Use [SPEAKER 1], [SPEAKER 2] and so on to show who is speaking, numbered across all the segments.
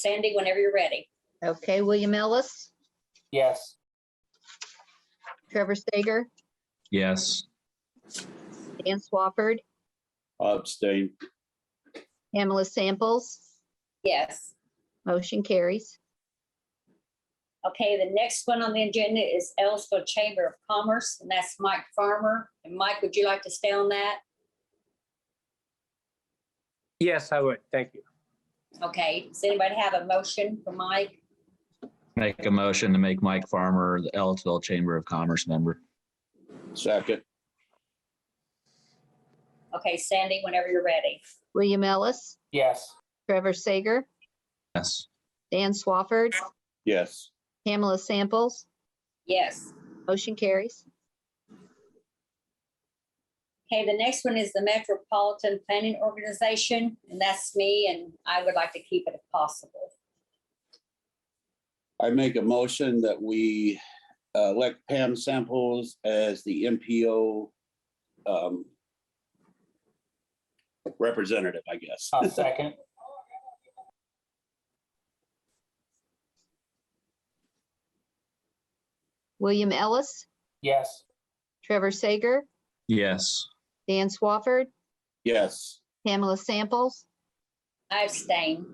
[SPEAKER 1] Sandy, whenever you're ready.
[SPEAKER 2] Okay, William Ellis,
[SPEAKER 3] Yes.
[SPEAKER 2] Trevor Sager,
[SPEAKER 4] Yes.
[SPEAKER 2] Dan Swafford,
[SPEAKER 5] Abstain.
[SPEAKER 2] Pamela Samples,
[SPEAKER 1] Yes.
[SPEAKER 2] motion carries.
[SPEAKER 1] Okay, the next one on the agenda is Ellisville Chamber of Commerce, and that's Mike Farmer. And Mike, would you like to stay on that?
[SPEAKER 3] Yes, I would. Thank you.
[SPEAKER 1] Okay, does anybody have a motion for Mike?
[SPEAKER 4] Make a motion to make Mike Farmer the Ellisville Chamber of Commerce member.
[SPEAKER 5] Second.
[SPEAKER 1] Okay, Sandy, whenever you're ready.
[SPEAKER 2] William Ellis,
[SPEAKER 3] Yes.
[SPEAKER 2] Trevor Sager,
[SPEAKER 4] Yes.
[SPEAKER 2] Dan Swafford,
[SPEAKER 5] Yes.
[SPEAKER 2] Pamela Samples,
[SPEAKER 1] Yes.
[SPEAKER 2] motion carries.
[SPEAKER 1] Okay, the next one is the Metropolitan Planning Organization, and that's me, and I would like to keep it if possible.
[SPEAKER 5] I make a motion that we uh, elect Pam Samples as the MPO um, representative, I guess.
[SPEAKER 3] I'll second.
[SPEAKER 2] William Ellis,
[SPEAKER 3] Yes.
[SPEAKER 2] Trevor Sager,
[SPEAKER 4] Yes.
[SPEAKER 2] Dan Swafford,
[SPEAKER 5] Yes.
[SPEAKER 2] Pamela Samples,
[SPEAKER 1] I abstain.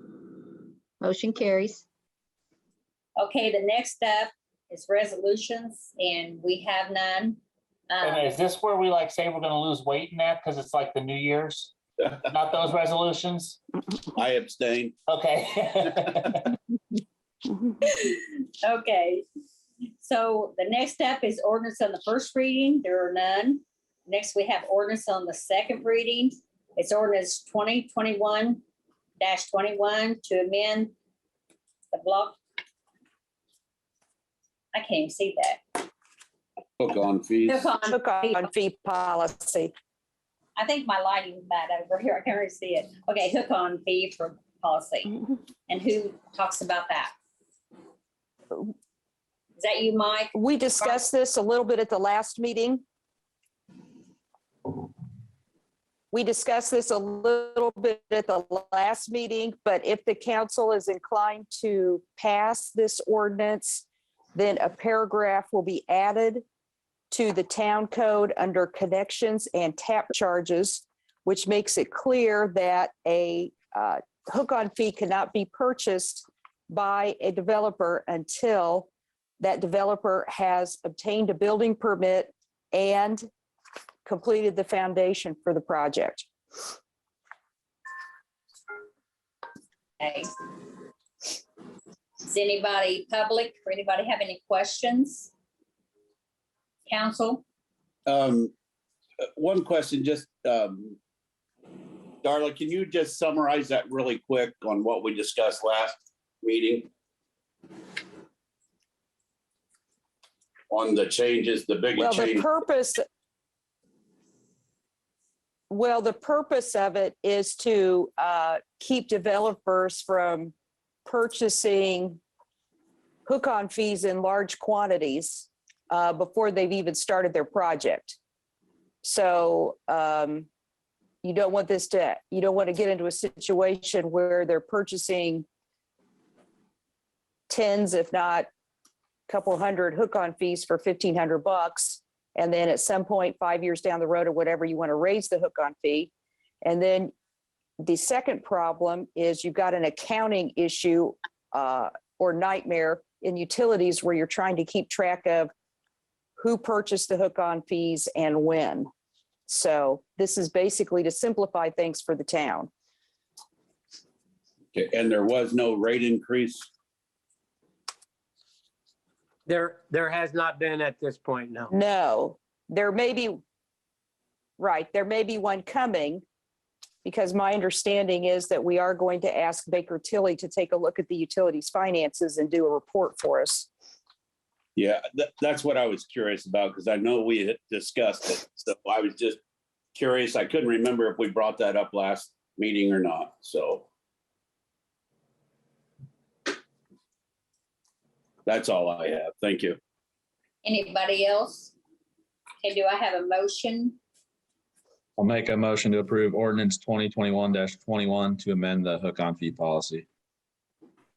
[SPEAKER 2] motion carries.
[SPEAKER 1] Okay, the next up is resolutions, and we have none. Um,
[SPEAKER 3] And is this where we like say we're gonna lose weight in that? Because it's like the New Year's? Not those resolutions?
[SPEAKER 5] I abstain.
[SPEAKER 3] Okay.
[SPEAKER 1] Okay, so the next step is ordinance on the first reading. There are none. Next, we have ordinance on the second reading. It's ordinance twenty twenty-one twenty-one to amend the block. I can't even see that.
[SPEAKER 5] Hook on fees.
[SPEAKER 1] Hook on
[SPEAKER 6] took
[SPEAKER 1] fee.
[SPEAKER 6] on fee policy.
[SPEAKER 1] I think my lighting's bad over here. I can't really see it. Okay, hook on fee for policy. And who talks about that? Is that you, Mike?
[SPEAKER 6] We discussed this a little bit at the last meeting. We discussed this a little bit at the last meeting, but if the council is inclined to pass this ordinance, then a paragraph will be added to the town code under connections and tap charges, which makes it clear that a uh, hook-on fee cannot be purchased by a developer until that developer has obtained a building permit and completed the foundation for the project.
[SPEAKER 1] Okay. Is anybody public or anybody have any questions? Council,
[SPEAKER 5] Um, uh, One question, just, um, Darla, can you just summarize that really quick on what we discussed last meeting? On the changes, the big
[SPEAKER 6] Well, the
[SPEAKER 5] change.
[SPEAKER 6] purpose. Well, the purpose of it is to uh, keep developers from purchasing hook-on fees in large quantities uh, before they've even started their project. So um, you don't want this to, you don't want to get into a situation where they're purchasing tens, if not a couple hundred hook-on fees for 1,500 bucks. And then at some point, five years down the road or whatever, you want to raise the hook on fee. And then the second problem is you've got an accounting issue uh, or nightmare in utilities where you're trying to keep track of who purchased the hook on fees and when. So this is basically to simplify things for the town.
[SPEAKER 5] Okay, And there was no rate increase?
[SPEAKER 7] There, there has not been at this point, no.
[SPEAKER 6] No, there may be, right, there may be one coming. Because my understanding is that we are going to ask Baker Tilly to take a look at the utilities finances and do a report for us.
[SPEAKER 5] Yeah, tha- that's what I was curious about because I know we had discussed it. So I was just curious. I couldn't remember if we brought that up last meeting or not. So that's all I have. Thank you.
[SPEAKER 1] anybody else? Okay, do I have a motion?
[SPEAKER 4] I'll make a motion to approve ordinance twenty twenty-one twenty-one to amend the hook on fee policy.